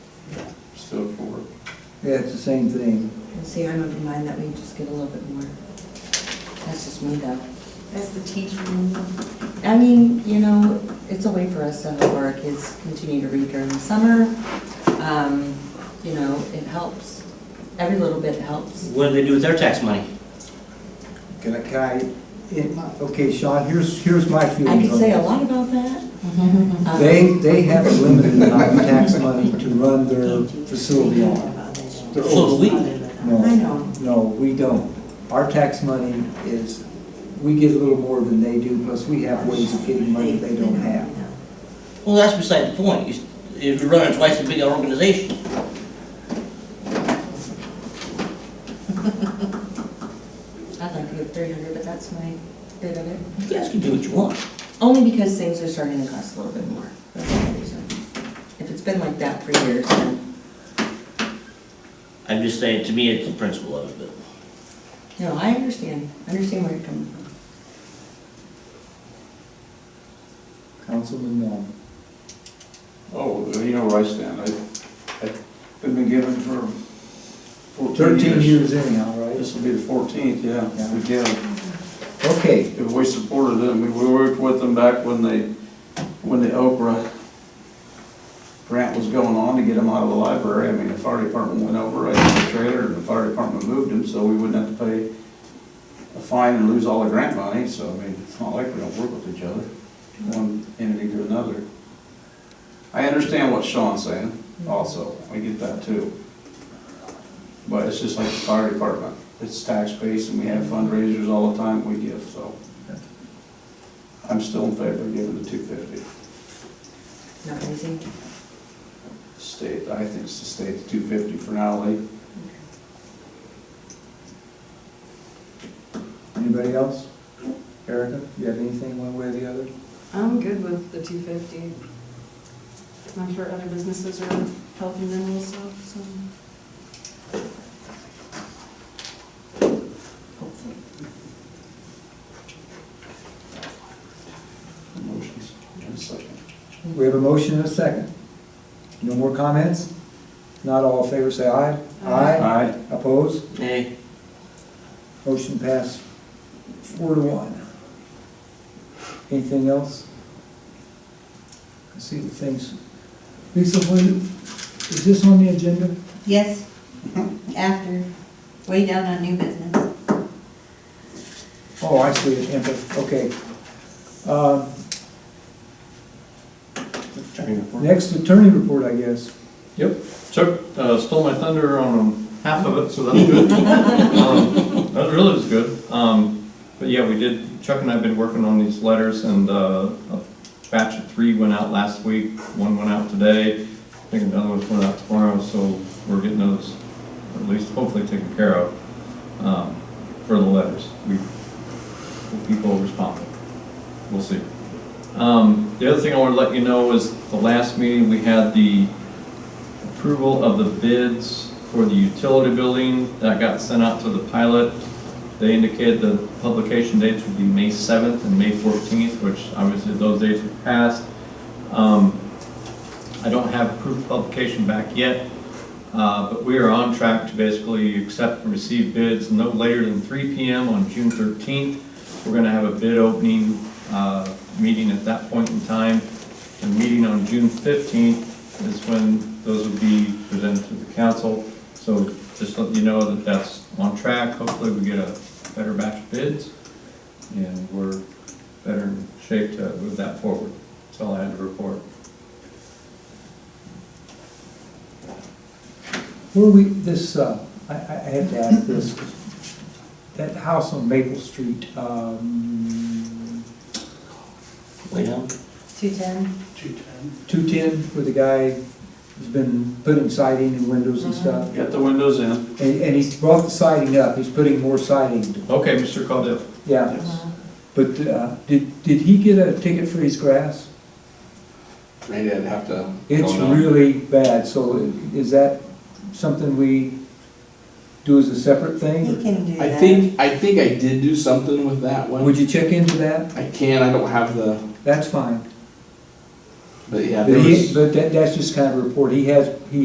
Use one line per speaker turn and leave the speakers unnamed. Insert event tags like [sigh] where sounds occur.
Yeah, it's the same thing.
And See, I'm of the mind that we just get a little bit more. That's just me though.
That's the teacher.
I mean, you know, it's a way for us to help our kids continue to read during the summer. Um, You know, it helps. Every little bit helps.
What do they do with their tax money?
Can I, can I, it- okay, Sean, here's, here's my
I
feelings
could
on
say a
this.
lot about
[laughs]
that. Um,
They, they have a limited amount of tax money to run their facility on. Their
So do
old-
we.
No.
I know.
No, we don't. Our tax money is, we get a little more than they do, plus we have ways of getting money they don't have.
Well, that's beside the point. You s- If you're running twice as big an organization,
I'd like to give three hundred, but that's my bit of it.
you guys can do what you want.
Only because things are starting to cost a little bit more. That's the only reason. If it's been like that for years, then,
I'm just saying, to me, it's the principle of it.
no, I understand. I understand where you're coming from.
Councilman Long.
Oh, you know where I stand. I, I've been given for fourteen years.
Thirteen years anyhow, right?
This will be the fourteenth, yeah.
Yeah.
We give,
Okay,
if we supported them, we we worked with them back when they, when the Oprah grant was going on to get them out of the library. I mean, the fire department went over, I had a trailer, and the fire department moved them, so we wouldn't have to pay a fine and lose all the grant money, so I mean, it's not like we don't work with each other, one entity to another. I understand what Sean's saying also, I get that too. But it's just like the fire department, it's tax-based and we have fundraisers all the time we give, so. I'm still in favor of giving the two fifty.
Not easy.
State, I think it's the state, two fifty for now, like,
anybody else? Erica, you have anything one way or the other?
I'm good with the two fifty. I'm sure other businesses are helping them also, so.
Hopefully.
motions. And a second.
We have a motion and a second. No more comments? Not all in favor, say aye. Aye.
Aye.
Opposed?
Hey,
Motion passed four to one. Anything else? I see the things. Lisa, what, is this on the agenda?
Yes, after, way down on new business.
Oh, I see it, Tampa, okay. Um, Next attorney report, I guess.
Yep, Chuck uh, stole my thunder on um, half of it, so [laughs] that's good. Um, That really was good. Um, But yeah, we did, Chuck and I have been working on these letters, and uh, a batch of three went out last week, one went out today, I think another one's going out tomorrow, so we're getting those at least hopefully taken care of um, for the letters. We, the people responded. We'll see. Um, The other thing I want to let you know is the last meeting, we had the approval of the bids for the utility building that got sent out to the pilot. They indicated the publication dates would be May 7th and May 14th, which obviously those dates have passed. Um, I don't have proof of publication back yet, uh, but we are on track to basically accept and receive bids no later than 3 PM on June 13th. We're going to have a bid opening uh, meeting at that point in time. The meeting on June 15th is when those will be presented to the council. So just let you know that that's on track. Hopefully, we get a better batch of bids, and we're better in shape to move that forward. That's all I had to report.
Where we, this, uh, I, I I have to ask this, that house on Maple Street, um,
way down.
Two ten?
two-ten, where the guy has been putting siding and windows and stuff,
Got the windows in.
and, and he's brought the siding up, he's putting more siding,
Okay, Mr. Caudill.
yeah.
Uh-huh.
Yes.
But, uh, did, did he get a ticket for his grass?
They didn't have to.
It's really bad, so is that something we do as a separate
He
thing?
can do
I
that.
think, I think I did do something with that
or-
one.
Would you check into that?
I can, I don't have the,
That's fine.
but yeah.
But
there was-
he, but that, that's just kind of a report, he has, he